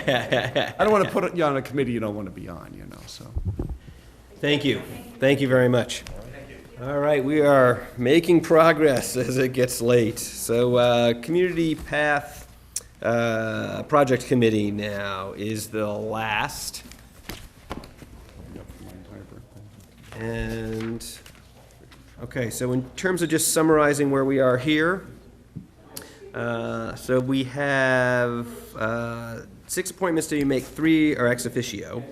Yeah. I don't want to put you on a committee you don't want to be on, you know, so. Thank you. Thank you very much. All right, we are making progress as it gets late. So, uh, Community Path, uh, Project Committee now is the last. And, okay, so in terms of just summarizing where we are here, uh, so we have, uh, six appointments to make, three are ex officio.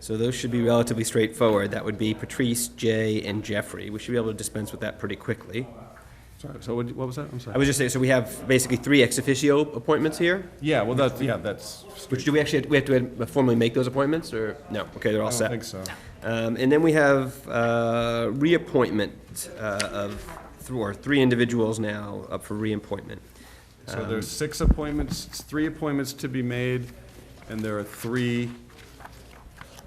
So those should be relatively straightforward. That would be Patrice, Jay, and Jeffrey. We should be able to dispense with that pretty quickly. Sorry, so what what was that? I'm I sorry. was just saying, so we have basically three ex officio appointments here, Yeah, well, that's, yeah, that's. which do we actually, we have to formally make those appointments, or, no, okay, they're all I set. don't think so. Um, And then we have uh, reappointment uh, of, th- or three individuals now up for reappointment. So there's six appointments, three appointments to be made, and there are three,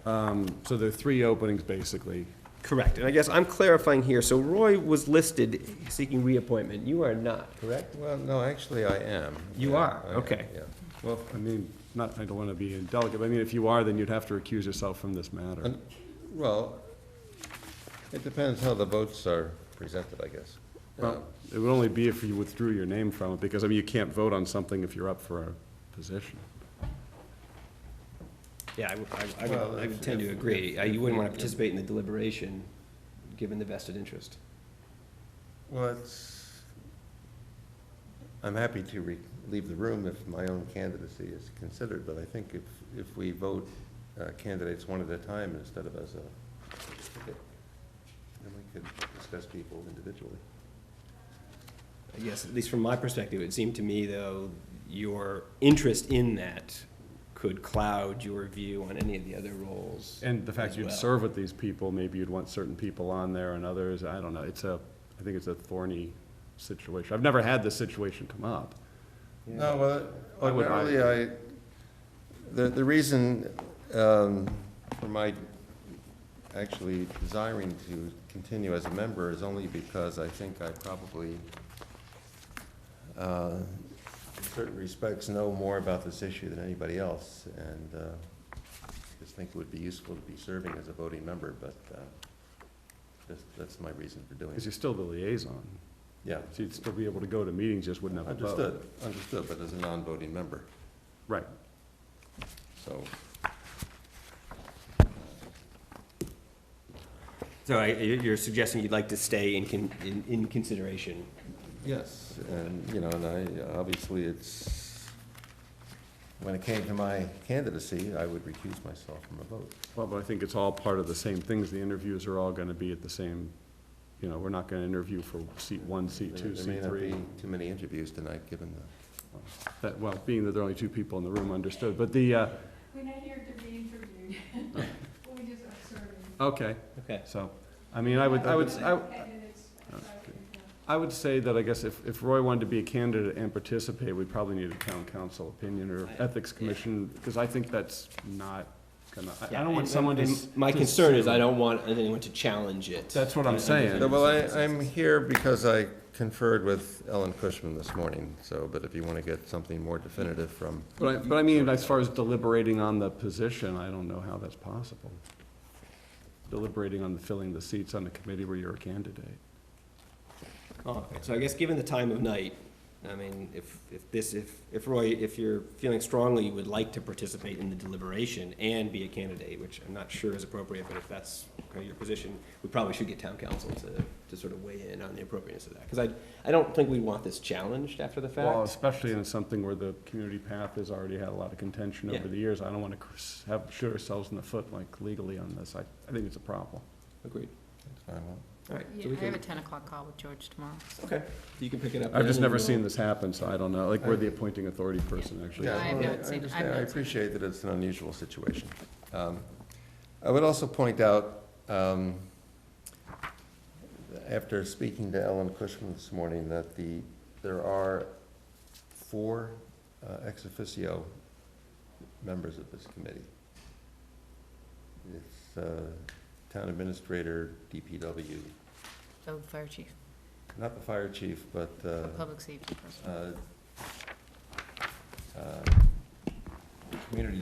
um, so there are three openings, basically. Correct, and I guess I'm clarifying here, so Roy was listed seeking reappointment, you are not, correct? Well, no, actually, I am. You Yeah, are, I am, okay. yeah. Well, I mean, not, I don't want to be indelicate, but I mean, if you are, then you'd have to recuse yourself from this matter. And, uh, well, it depends how the votes are presented, I guess. Well, it would only be if you withdrew your name from it, because, I mean, you can't vote on something if you're up for a position. Yeah, I would- I- I Well, would, I would if- tend to if- agree. Uh, You wouldn't want to if- participate in the deliberation, given the vested interest. Well, it's, I'm happy to re, leave the room if my own candidacy is considered, but I think if, if we vote uh, candidates one at a time instead of as a, then we could discuss people individually. I guess, at least from my perspective, it seemed to me, though, your interest in that could cloud your view on any of the other roles. And the as fact you'd well. serve with these people, maybe you'd want certain people on there and others, I don't know, it's a, I think it's a thorny situation. I've never had this situation come up. No, well, Why would I? ordinarily, I, the, the reason um, for my actually desiring to continue as a member is only because I think I probably, uh, in certain respects, know more about this issue than anybody else, and uh, just think it would be useful to be serving as a voting member, but uh, just, that's my reason for doing Because it. you're still the liaison, Yeah, so you'd still be able to go to meetings, just wouldn't have a vote. understood, understood, but as a non-voting member. Right. So, So I- you- you're suggesting you'd like to stay in con- in in consideration? yes, and, you know, and I, obviously, it's, when it came to my candidacy, I would recuse myself from a vote. Well, but I think it's all part of the same things. The interviews are all gonna be at the same, you know, we're not gonna interview for seat one, seat There- two, seat There may three. not be too many interviews tonight, given the, That, well, being that there are only two people in the room, understood, but the, uh, We're not here to be interviewed. We just are serving. okay, Okay. so, I mean, I would, I would, I, Candidates, that's how we go. I would say that I guess if, if Roy wanted to be a candidate and participate, we probably need a town council opinion or ethics commission, because I think that's not gonna, I- I don't want someone to. And s- My to concern is sue. I don't want anyone to challenge it. That's what I'm saying. No, well, I, I'm here because I conferred with Ellen Cushman this morning, so, but if you want to get something more definitive from, But I, but I mean, as far as deliberating on the position, I don't know how that's possible. Deliberating on the filling the seats on a committee where you're a candidate. Oh, okay. So I guess given the time of night, I mean, if, if this, if, if Roy, if you're feeling strongly you would like to participate in the deliberation and be a candidate, which I'm not sure is appropriate, but if that's kind of your position, we probably should get town council to, to sort of weigh in on the appropriateness of that. Because I, I don't think we want this challenged after the Well, fact. especially in something where the community path has already had a lot of contention Yeah. over the years. I don't want to have, shoot ourselves in the foot like legally on this. I, I think it's a problem. Agreed. that's what I want. All right. Yeah, so we I have a can- ten o'clock call with George tomorrow. Okay. You can pick it up. I've then just and never we'll- seen this happen, so I don't know, like, we're the appointing authority person, actually. Yeah, I have well, notes in- I have understand. I notes in. appreciate that it's an unusual situation. Um, I would also point out, um, after speaking to Ellen Cushman this morning, that the, there are four uh, ex officio members of this committee. It's uh, town administrator, DPW, The fire chief, not the fire chief, but uh, public safety person. uh, uh, community